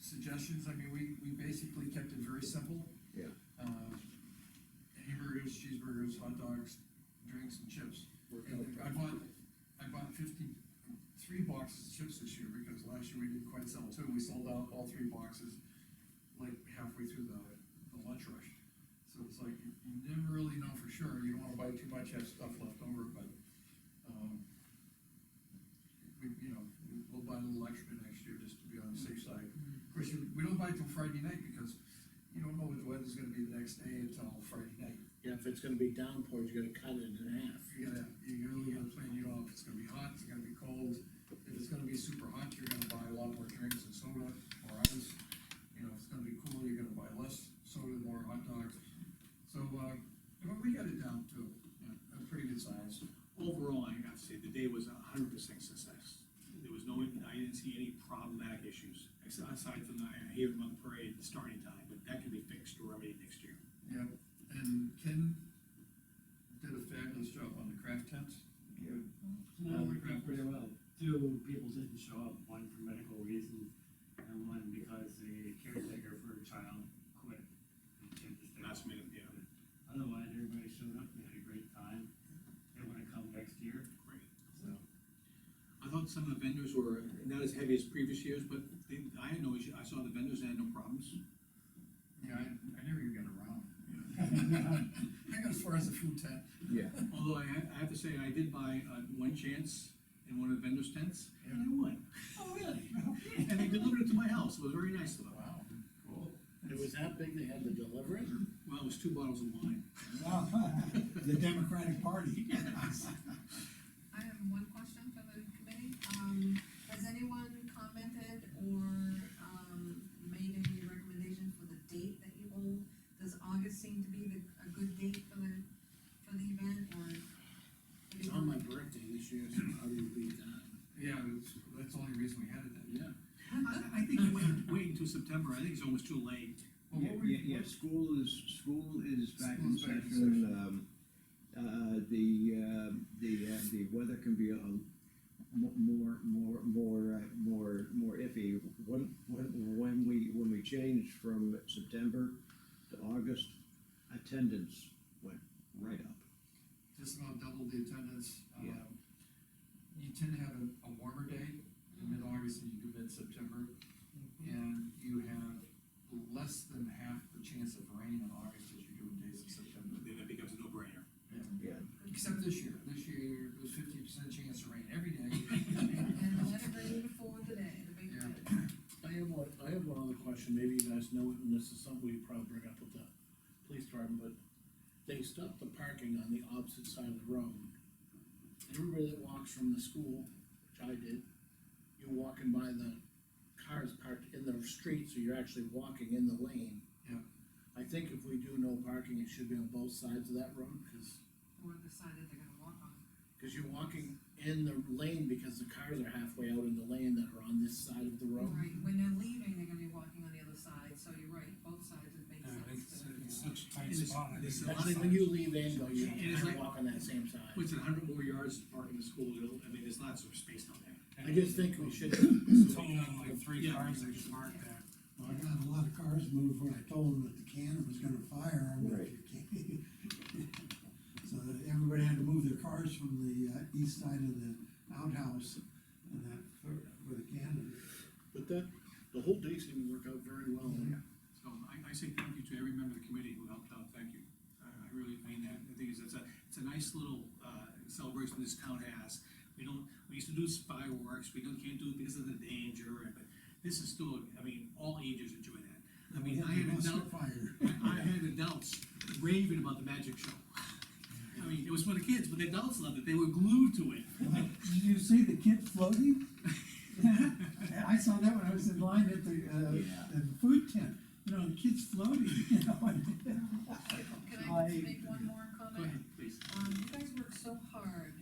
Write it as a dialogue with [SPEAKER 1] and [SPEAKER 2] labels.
[SPEAKER 1] suggestions, I mean, we, we basically kept it very simple.
[SPEAKER 2] Yeah.
[SPEAKER 1] Uh, hamburgers, cheeseburgers, hot dogs, drinks and chips. And I bought, I bought fifty, three boxes of chips this year, because last year we didn't quite sell two, we sold out all three boxes like halfway through the, the lunch rush. So it's like, you you never really know for sure, you don't wanna buy too much, have stuff left over, but, um, we, you know, we'll buy a little extra next year, just to be on the safe side. Of course, you- we don't buy till Friday night, because you don't know what the weather's gonna be the next day until Friday night.
[SPEAKER 2] Yeah, if it's gonna be downpour, you gotta cut it in half.
[SPEAKER 1] You gotta, you really gotta plan, you know, if it's gonna be hot, it's gonna be cold, if it's gonna be super hot, you're gonna buy a lot more drinks and soda, or ice. You know, if it's gonna be cool, you're gonna buy less soda, more hot dogs, so, uh, but we got it down to a pretty good size.
[SPEAKER 3] Overall, I have to say, the day was a hundred percent success. There was no, I didn't see any problematic issues, except aside from the Haven Month Parade, the starting time, but that can be fixed or remedied next year.
[SPEAKER 1] Yep, and Ken did a fabulous job on the craft tents.
[SPEAKER 4] No, we got pretty well. Two people didn't show up, one for medical reasons, and one because the caretaker for a child quit. and can't just stay
[SPEAKER 3] Last
[SPEAKER 4] home.
[SPEAKER 3] minute, yeah,
[SPEAKER 4] Otherwise, everybody showed up, they had a great time, they wanna come next year,
[SPEAKER 3] great.
[SPEAKER 4] so.
[SPEAKER 3] I thought some of the vendors were not as heavy as previous years, but they, I had no issue, I saw the vendors, I had no problems.
[SPEAKER 1] Yeah, I, I never even got around. I got as far as the food tent.
[SPEAKER 2] Yeah.
[SPEAKER 3] Although I, ha- I have to say, I did buy, uh, one chance in one of the vendors' tents, and I won.
[SPEAKER 1] Oh, really?
[SPEAKER 3] And they delivered it to my house, it was very nice of them.
[SPEAKER 1] Wow, cool.
[SPEAKER 2] It was that big, they had to deliver it?
[SPEAKER 3] Well, it was two bottles of wine.
[SPEAKER 5] The Democratic Party.
[SPEAKER 6] I have one question for the committee, um, has anyone commented or, um, made any recommendation for the date that you hold? Does August seem to be the, a good date for the, for the event, or?
[SPEAKER 2] It's on my birthday this year, so how do you beat that?
[SPEAKER 1] Yeah, that's, that's the only reason we had it then.
[SPEAKER 2] Yeah.
[SPEAKER 3] I think you wait, wait until September, I think it's almost too late.
[SPEAKER 1] Well, what were
[SPEAKER 7] Yeah,
[SPEAKER 1] you-
[SPEAKER 7] yeah, school is, school is back in
[SPEAKER 1] School's back in
[SPEAKER 7] session, um, uh, the, uh, the, uh, the weather can be a mo- more, more, more, uh, more, more iffy. When, when, when we, when we changed from September to August, attendance went right up.
[SPEAKER 1] Just about double the attendance.
[SPEAKER 7] Yeah.
[SPEAKER 1] Um, You tend to have a, a warmer day in mid-August than you do mid-September. And you have less than half the chance of rain in August as you do in days of September.
[SPEAKER 3] Then it becomes a no-brainer.
[SPEAKER 7] Yeah.
[SPEAKER 1] Except this year, this year there's fifty percent chance of rain every day.
[SPEAKER 6] And the letter ready before the day, the big
[SPEAKER 1] Yeah.
[SPEAKER 6] day.
[SPEAKER 2] I have one, I have one other question, maybe you guys know it, and this is something we probably bring up with the police department, but they stopped the parking on the opposite side of the road. And Everybody that walks from the school, which I did, you're walking by the cars parked in the street, so you're actually walking in the lane.
[SPEAKER 1] Yeah.
[SPEAKER 2] I think if we do no parking, it should be on both sides of that road, cause,
[SPEAKER 6] Or the side that they're gonna walk on.
[SPEAKER 2] cause you're walking in the lane because the cars are halfway out in the lane that are on this side of the road.
[SPEAKER 6] Right, when they're leaving, they're gonna be walking on the other side, so you're right, both sides would
[SPEAKER 1] Uh,
[SPEAKER 6] make sense. to-
[SPEAKER 5] It's such a tight
[SPEAKER 3] It is-
[SPEAKER 5] spot. I
[SPEAKER 3] it is
[SPEAKER 5] think.
[SPEAKER 3] a lot.
[SPEAKER 2] Actually, when you leave Anvil, you
[SPEAKER 3] It is
[SPEAKER 2] kind
[SPEAKER 3] like-
[SPEAKER 2] of walk on that same side.
[SPEAKER 3] Puts it a hundred more yards to park in the school, it'll- I mean, there's lots of space down there.
[SPEAKER 2] I just think we should.
[SPEAKER 5] It's only like three
[SPEAKER 3] Yeah.
[SPEAKER 5] cars that can park there.
[SPEAKER 8] Well, I got a lot of cars moved when I told them that the cannon was gonna fire. and that you can't- So that everybody had to move their cars from the uh, east side of the outhouse and that, for- for the cannon.
[SPEAKER 2] But that, the whole day seemed to work out very well.
[SPEAKER 3] So I, I say thank you to every member of the committee who helped out, thank you. I, I really mean that, I think it's, it's a, it's a nice little, uh, celebration this town has. We don't, we used to do fireworks, we don't, can't do it because of the danger, and- but this is still, I mean, all ages enjoy that. I mean, I had
[SPEAKER 8] Lost
[SPEAKER 3] adults,
[SPEAKER 8] Fire.
[SPEAKER 3] I had adults raving about the magic show. I mean, it was for the kids, but the adults loved it, they were glued to it.
[SPEAKER 5] Did you see the kid floating? I saw that when I was in line at the,
[SPEAKER 7] Yeah.
[SPEAKER 5] uh, the food tent, you know, the kid's floating, you know.
[SPEAKER 6] Can I
[SPEAKER 5] I-
[SPEAKER 6] just make one more
[SPEAKER 3] Go
[SPEAKER 6] comment?
[SPEAKER 3] ahead, please.
[SPEAKER 6] Um, you guys work so hard